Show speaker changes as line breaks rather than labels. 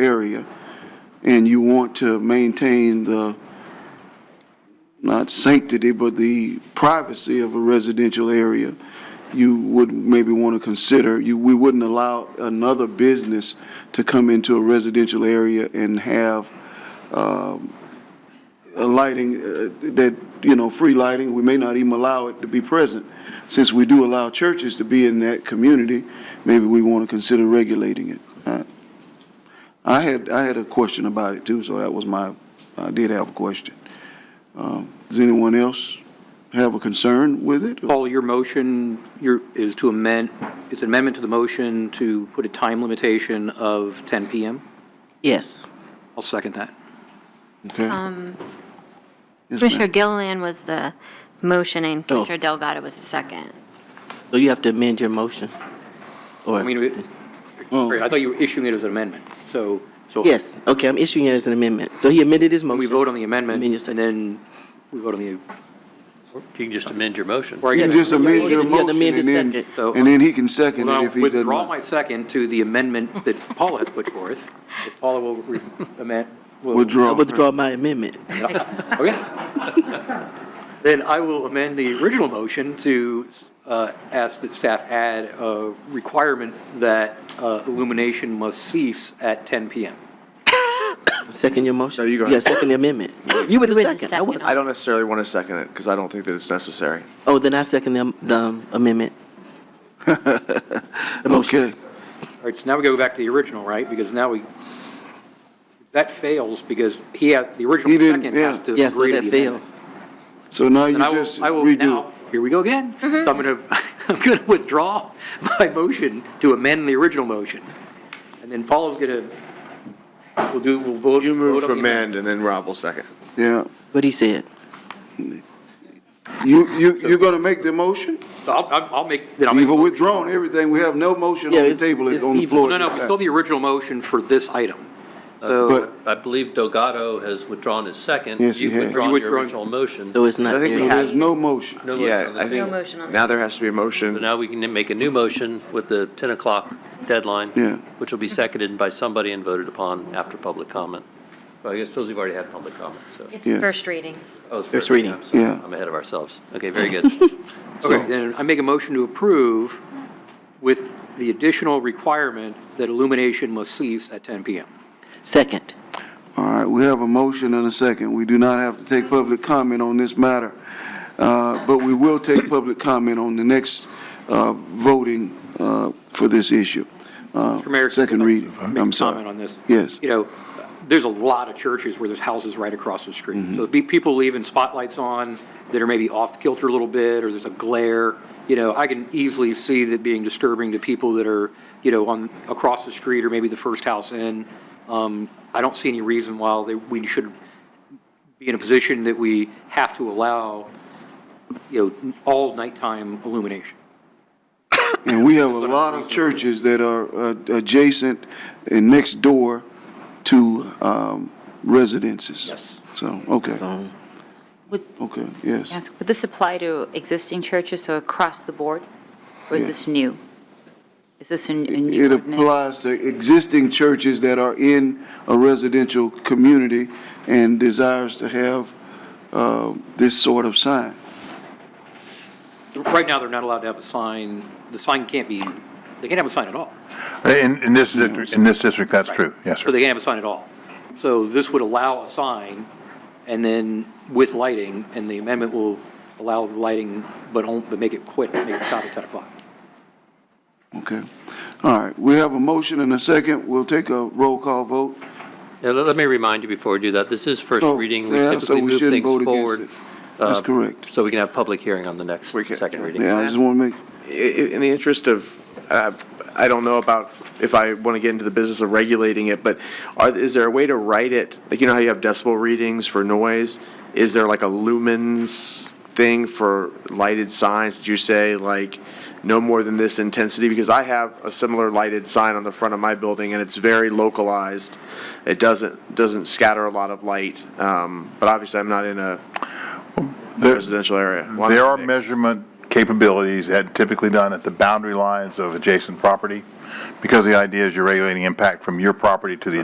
area, and you want to maintain the, not sanctity, but the privacy of a residential area, you would maybe want to consider, you, we wouldn't allow another business to come into a residential area and have, um, a lighting, uh, that, you know, free lighting, we may not even allow it to be present. Since we do allow churches to be in that community, maybe we want to consider regulating it. I- I had, I had a question about it too, so that was my, I did have a question. Um, Does anyone else have a concern with it?
Paul, your motion, your, is to amend, it's an amendment to the motion to put a time limitation of 10 PM?
Yes.
I'll second that.
Okay. Yes, ma'am. Oh.
Commissioner Gilliland was the motion and Commissioner Delgado was the second.
So you have to amend your motion?
I
Or,
mean, it-
Oh.
I thought you were issuing it as an amendment, so, so.
yes, okay, I'm issuing it as an amendment. So he amended his motion.
We vote on the amendment,
Amend your second.
and then we vote on the,
You can just amend your motion.
or I
You can
guess,
just amend
You
your
just have to
motion
amend
and
the
then,
second.
So-
and then he can second
well,
it if
I'll
he doesn't.
withdraw my second to the amendment that Paula has put forth. If Paula will re- amend, will.
I
Withdraw.
withdraw my amendment.
Okay. Oh, Then I will amend the original motion to uh, ask that staff add a requirement that uh, illumination must cease at 10 PM.
Second your motion?
No, you go
Yeah,
ahead.
second the amendment. You were the
Wait a
second. I was.
second.
I don't necessarily want to second it because I don't think that it's necessary.
Oh, then I second the, the amendment. The motion.
Okay.
All right, so now we go back to the original, right? Because now we, that fails because he had, the original
He didn't,
second
yeah.
has to
Yeah, so
agree to
that
the amendment.
fails.
So now you
And I will,
just
I will
redo
now,
it.
here we go again. So I'm going to, I'm going to withdraw my motion to amend the original motion. And then Paula's going to, we'll do, we'll vote.
You move
vote on
to
the amendment.
amend and then Rob will second.
Yeah.
What he said.
You, you, you're gonna make the motion?
So I'll, I'll I'll make, then I'll make.
You've withdrawn everything. We have no motion
Yeah,
on the
it's-
table, it's
it's
on the
even.
floor.
No,
at
no,
this
we
time.
still have the original motion for this item.
But-
So
I believe Delgado has withdrawn his second.
Yes, he
You've
has.
withdrawn
You
your
withdrawn-
original motion.
So it's not
I think
there.
we
So
have-
There's no motion.
No motion
Yeah,
on the
I
table.
think
motion on the
now there has to be a
So
motion.
now we can make a new motion with the 10 o'clock deadline.
Yeah.
Which will be seconded by somebody and voted upon after public comment. Well, I guess those who've already had public comment, so.
It's
Yeah.
first reading.
Oh, it's
First
fair.
reading.
I'm sorry.
Yeah.
I'm ahead of ourselves. Okay, very good.
so then I make a motion to approve with the additional requirement that illumination must cease at 10 PM.
Second.
All right, we have a motion and a second. We do not have to take public comment on this matter, uh, but we will take public comment on the next uh, voting uh, for this issue. Uh,
Mr. Mayor,
Second reading,
make a
I'm sorry.
Comment on this.
Yes.
You know, there's a lot of churches where there's houses right across the street. So be, people leaving spotlights on that are maybe off kilter a little bit, or there's a glare. You know, I can easily see that being disturbing to people that are, you know, on, across the street or maybe the first house in. Um, I don't see any reason why they, we should be in a position that we have to allow, you know, all nighttime illumination.
And we have a lot of churches that are uh, adjacent and next door to um, residences.
Yes.
So, okay,
Um,
Would,
okay, yes.
yes, would this apply to existing churches, so across the board? Or is this new? Is this a n- a new?
It
ordinance?
applies to existing churches that are in a residential community and desires to have uh, this sort of sign.
Right now, they're not allowed to have a sign, the sign can't be, they can't have a sign at all.
In, in this, district- in this district, that's true, yes,
So
sir.
they can't have a sign at all. So this would allow a sign, and then with lighting, and the amendment will allow the lighting, but on, but make it quit, make it stop at 10 o'clock.
Okay? All right, we have a motion and a second. We'll take a roll call vote.
Now, let let me remind you before we do that, this is first
Oh,
reading. We
yeah, so
typically
we
move
shouldn't
things
vote against
forward.
it. That's
uh,
correct.
So we can have public hearing on the next,
We can-
second reading.
Yeah, I just want to make,
I- i- In the interest of, uh, I don't know about if I want to get into the business of regulating it, but are, is there a way to write it? Like, you know how you have decibel readings for noise? Is there like a lumens thing for lighted signs? Did you say like no more than this intensity? Because I have a similar lighted sign on the front of my building and it's very localized. It doesn't, doesn't scatter a lot of light. Um, but obviously I'm not in a
There-
residential area. Well, I'm
There are
mixed.
measurement capabilities that typically done at the boundary lines of adjacent property, because the idea is you're regulating impact from your property to the